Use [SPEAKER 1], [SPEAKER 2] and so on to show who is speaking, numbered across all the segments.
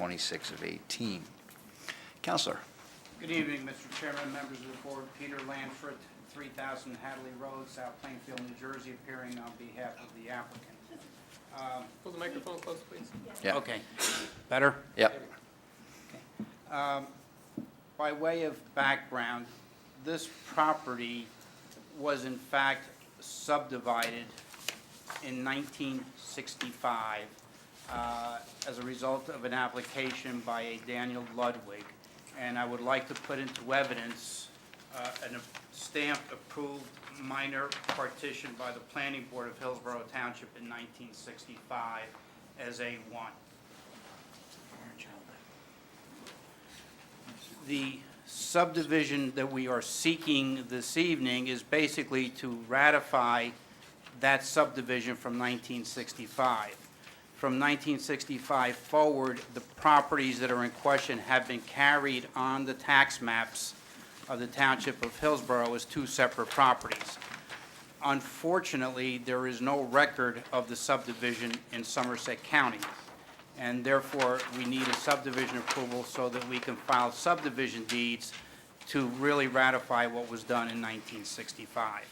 [SPEAKER 1] 26 of 18. Counselor?
[SPEAKER 2] Good evening, Mr. Chairman, members of the board. Peter Lanford, 3000 Hadley Road, South Plainfield, New Jersey, appearing on behalf of the applicant.
[SPEAKER 3] Pull the microphone close, please.
[SPEAKER 1] Yeah.
[SPEAKER 2] Okay. Better?
[SPEAKER 1] Yep.
[SPEAKER 2] Um, By way of background, this property was in fact subdivided in 1965 uh, as a result of an application by a Daniel Ludwig. And I would like to put into evidence uh, an stamped approved minor partition by the Planning Board of Hillsborough Township in 1965 as A1. The subdivision that we are seeking this evening is basically to ratify that subdivision from 1965. From 1965 forward, the properties that are in question have been carried on the tax maps of the Township of Hillsborough as two separate properties. Unfortunately, there is no record of the subdivision in Somerset County, and therefore, we need a subdivision approval so that we can file subdivision deeds to really ratify what was done in 1965.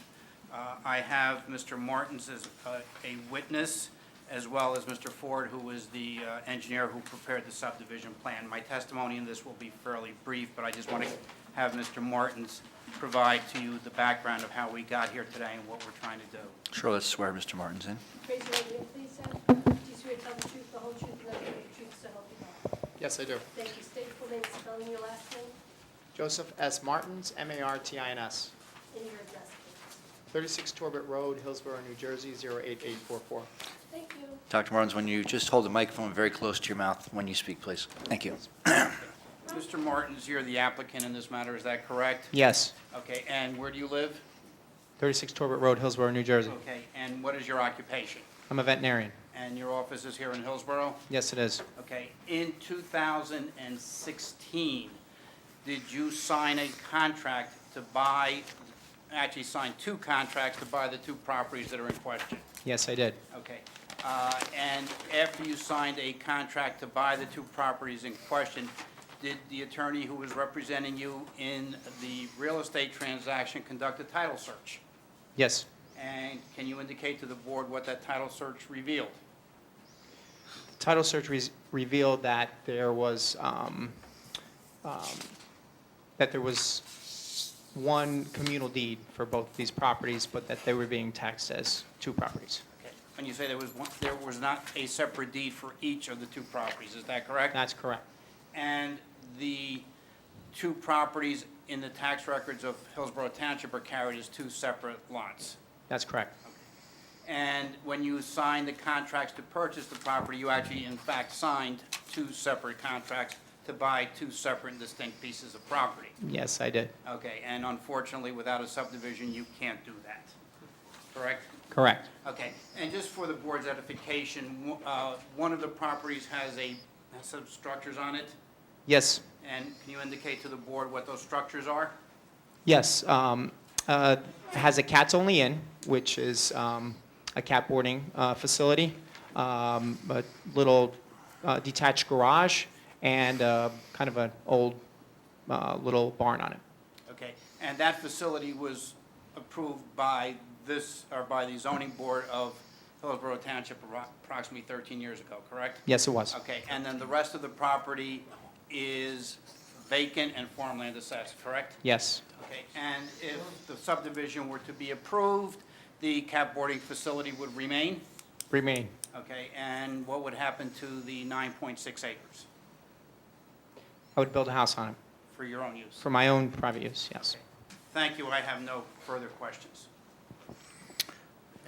[SPEAKER 2] Uh, I have Mr. Martins as uh, a witness, as well as Mr. Ford, who was the uh, engineer who prepared the subdivision plan. My testimony in this will be fairly brief, but I just want to have Mr. Martins provide to you the background of how we got here today and what we're trying to do.
[SPEAKER 1] Sure, let's swear Mr. Martins in.
[SPEAKER 4] Raise your right hand, please, sir. Do you swear to tell the truth, the whole truth, and nothing but the truth, so help you God?
[SPEAKER 3] Yes, I do.
[SPEAKER 4] Thank you. State your full name, spelling your last name,
[SPEAKER 3] Joseph S. Martins, M-A-R-T-I-N-S,
[SPEAKER 4] and your address, please.
[SPEAKER 3] 36 Torbit Road, Hillsborough, New Jersey, 08844.
[SPEAKER 4] Thank you.
[SPEAKER 1] Dr. Martins, when you just hold the microphone very close to your mouth when you speak, please. Thank you.
[SPEAKER 2] Mr. Martins, you're the applicant in this matter, is that correct?
[SPEAKER 3] Yes.
[SPEAKER 2] Okay, and where do you live?
[SPEAKER 3] 36 Torbit Road, Hillsborough, New Jersey.
[SPEAKER 2] Okay, and what is your occupation?
[SPEAKER 3] I'm a veterinarian.
[SPEAKER 2] And your office is here in Hillsborough?
[SPEAKER 3] Yes, it is.
[SPEAKER 2] Okay, in 2016, did you sign a contract to buy, actually sign two contracts to buy the two properties that are in question?
[SPEAKER 3] Yes, I did.
[SPEAKER 2] Okay. Uh, And after you signed a contract to buy the two properties in question, did the attorney who was representing you in the real estate transaction conduct a title search?
[SPEAKER 3] Yes.
[SPEAKER 2] And can you indicate to the board what that title search revealed?
[SPEAKER 3] Title search re- revealed that there was, um, um, that there was one communal deed for both these properties, but that they were being taxed as two properties.
[SPEAKER 2] Okay. And you say there was one, there was not a separate deed for each of the two properties, is that correct?
[SPEAKER 3] That's correct.
[SPEAKER 2] And the two properties in the tax records of Hillsborough Township are carried as two separate lots?
[SPEAKER 3] That's correct.
[SPEAKER 2] And when you signed the contracts to purchase the property, you actually in fact signed two separate contracts to buy two separate and distinct pieces of property.
[SPEAKER 3] Yes, I did.
[SPEAKER 2] Okay, and unfortunately, without a subdivision, you can't do that, correct?
[SPEAKER 3] Correct.
[SPEAKER 2] Okay, and just for the board's edification, one- uh, one of the properties has a, has some structures on it,
[SPEAKER 3] Yes,
[SPEAKER 2] and can you indicate to the board what those structures are?
[SPEAKER 3] yes. Um, uh, has a cats only inn, which is um, a cat boarding uh, facility, um, a little uh, detached garage, and uh, kind of an old uh, little barn on it.
[SPEAKER 2] Okay, and that facility was approved by this, or by the zoning board of Hillsborough Township appro- approximately 13 years ago, correct?
[SPEAKER 3] Yes, it was.
[SPEAKER 2] Okay, and then the rest of the property is vacant and farmland assessed, correct?
[SPEAKER 3] Yes,
[SPEAKER 2] Okay, and if the subdivision were to be approved, the cap boarding facility would remain?
[SPEAKER 3] remain.
[SPEAKER 2] Okay, and what would happen to the 9.6 acres
[SPEAKER 3] I would build a house on it
[SPEAKER 2] for your own use?
[SPEAKER 3] for my own private use. Yes.
[SPEAKER 2] Thank you, I have no further questions.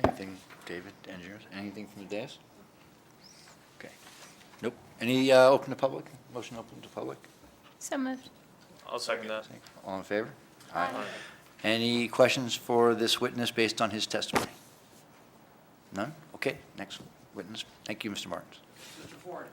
[SPEAKER 1] Anything, David, engineers, anything from the desk? Okay. Nope. Any uh, open to public? Motion open to public?
[SPEAKER 5] So moved.
[SPEAKER 6] I'll second that.
[SPEAKER 1] All in favor? Any questions for this witness based on his testimony? None? Okay, next witness. Thank you, Mr. Martins.
[SPEAKER 2] Mr. Ford?